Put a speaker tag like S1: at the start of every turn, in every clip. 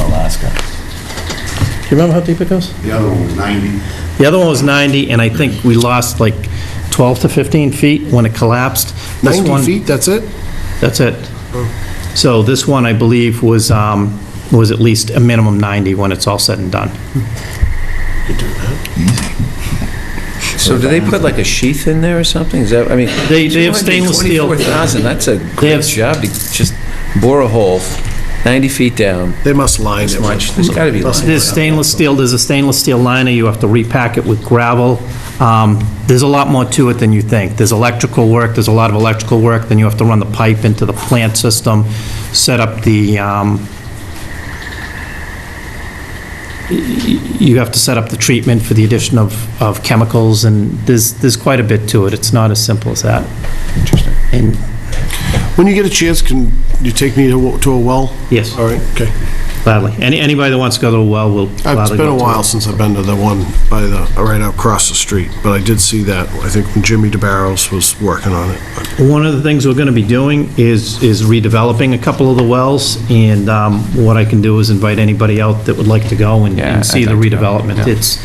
S1: Alaska. Do you remember how deep it goes?
S2: The other one was 90.
S1: The other one was 90, and I think we lost like 12 to 15 feet when it collapsed. This
S3: 90
S1: one-
S3: feet, that's it?
S1: That's it. So this one, I believe, was, um, was at least a minimum 90 when it's all said and done.
S4: So do they put like a sheath in there or something? Is that, I mean...
S1: They- they have stainless steel.
S4: 24,000, that's a great
S1: have-
S4: job to just bore a hole 90 feet down.
S3: They must line it.
S4: Watch, there's gotta be
S3: Must-
S4: lines.
S1: There's stainless steel, there's a stainless steel liner, you have to repack it with gravel. Um, There's a lot more to it than you think. There's electrical work, there's a lot of electrical work, then you have to run the pipe into the plant system, set up the, um, y- y- you have to set up the treatment for the addition of, of chemicals, and there's, there's quite a bit to it. It's not as simple as that. Interesting. And,
S3: When you get a chance, can you take me to a- to a well?
S1: Yes.
S3: All right, okay.
S1: gladly, any, anybody that wants to go to a well will gladly
S3: It's been
S1: go
S3: a
S1: to
S3: while since I've been to the one by the, right out across the street, but I did see that, I think when Jimmy DeBarros was working on it. but-
S1: One of the things we're going to be doing is, is redeveloping a couple of the wells, and um, what I can do is invite anybody out that would like to go and-
S4: Yeah,
S1: and see
S4: I'd
S1: the
S4: like to go,
S1: redevelopment.
S4: yeah.
S1: It's,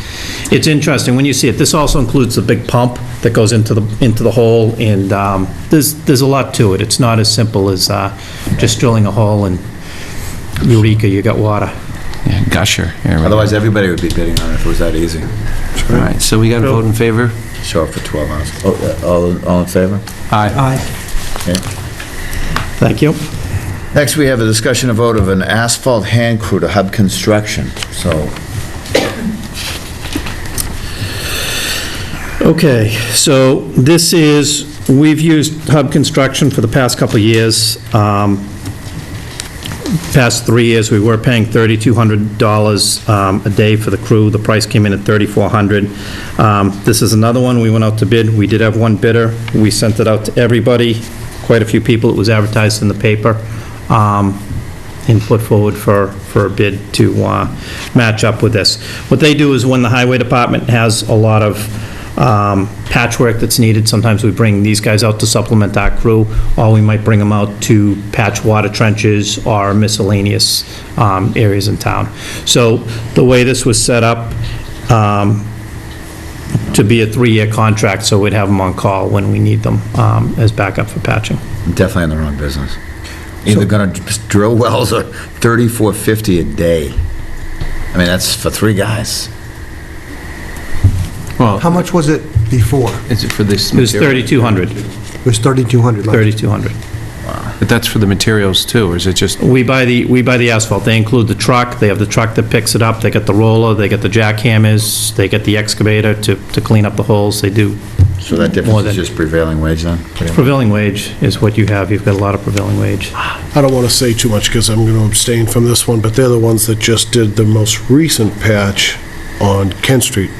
S1: it's interesting, when you see it, this also includes the big pump that goes into the, into the hole, and um, there's, there's a lot to it. It's not as simple as uh, just drilling a hole and eureka, you got water.
S4: Yeah, Gusher. Here we go.
S5: Otherwise, everybody would be bidding on it if it was that easy.
S4: All right, so we got to vote in favor?
S5: Show up for 12 hours. Oh, uh, All, all in favor?
S4: Aye.
S5: Okay.
S1: Thank you.
S5: Next, we have a discussion of vote of an asphalt hand crew to hub construction. So,
S1: Okay, so this is, we've used Hub Construction for the past couple of years. Um, Past three years, we were paying $3,200 um, a day for the crew. The price came in at $3,400. Um, This is another one. We went out to bid. We did have one bidder. We sent it out to everybody, quite a few people. It was advertised in the paper um, and put forward for, for a bid to uh, match up with this. What they do is when the highway department has a lot of um, patchwork that's needed, sometimes we bring these guys out to supplement our crew, or we might bring them out to patch water trenches or miscellaneous um, areas in town. So the way this was set up, um, to be a three-year contract, so we'd have them on call when we need them um, as backup for patching.
S5: definitely in the wrong business. Either gonna just drill wells or 3450 a day. I mean, that's for three guys.
S6: How
S4: Well,
S6: much was it before?
S4: is it for this
S1: It was
S4: material?
S1: 3,200,
S6: It was 3,200 left.
S1: 3,200.
S4: But that's for the materials too, or is it just,
S1: We buy the, we buy the asphalt. They include the truck, they have the truck that picks it up, they get the roller, they get the jackhammers, they get the excavator to, to clean up the holes, they do.
S5: So that
S1: more
S5: difference
S1: than-
S5: is just prevailing wage then? pretty much?
S1: Prevailing wage is what you have, you've got a lot of prevailing wage.
S3: I don't want to say too much because I'm going to abstain from this one, but they're the ones that just did the most recent patch on Kent Street.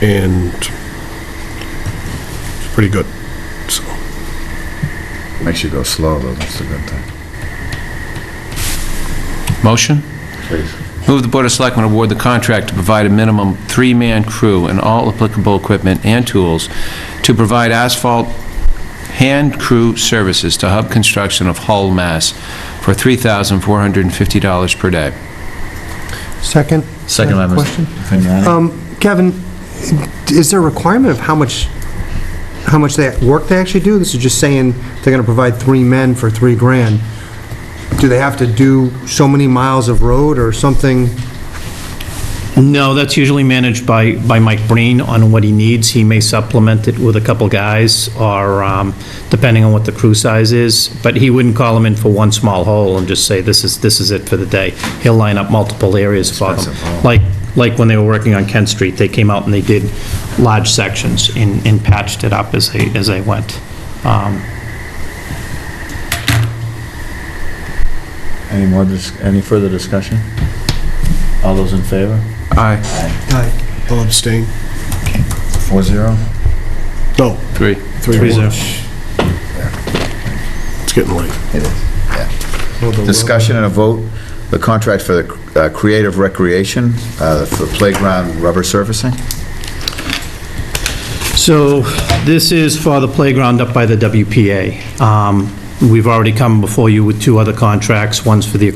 S3: And it's pretty good, so.
S5: Makes you go slow, though, that's a good thing.
S4: motion?
S5: Please.
S4: Move the Board of Selectmen award the contract to provide a minimum three-man crew and all applicable equipment and tools to provide asphalt hand crew services to Hub Construction of Hull, Mass. for $3,450 per day.
S6: Second?
S5: Second by Mr.
S6: Question?
S5: Vignani.
S6: Um, Kevin, is there a requirement of how much, how much they, work they actually do? This is just saying they're going to provide three men for three grand. Do they have to do so many miles of road or something?
S1: No, that's usually managed by, by Mike Breen on what he needs. He may supplement it with a couple guys, or um, depending on what the crew size is, but he wouldn't call them in for one small hole and just say, this is, this is it for the day. He'll line up multiple areas for
S5: Expensive hole.
S1: them. Like, like when they were working on Kent Street, they came out and they did large sections and, and patched it up as they, as they went. Um,
S5: Any more, dis- any further discussion? All those in favor?
S4: Aye.
S3: I'll abstain.
S5: Four zero?
S3: No,
S4: Three.
S3: three
S1: Three zero.
S3: to one. It's getting late.
S5: It is. Discussion and a vote, the contract for the uh, Creative Recreation, uh, for playground rubber surfacing.
S1: So this is for the playground up by the WPA. Um, We've already come before you with two other contracts, one's for the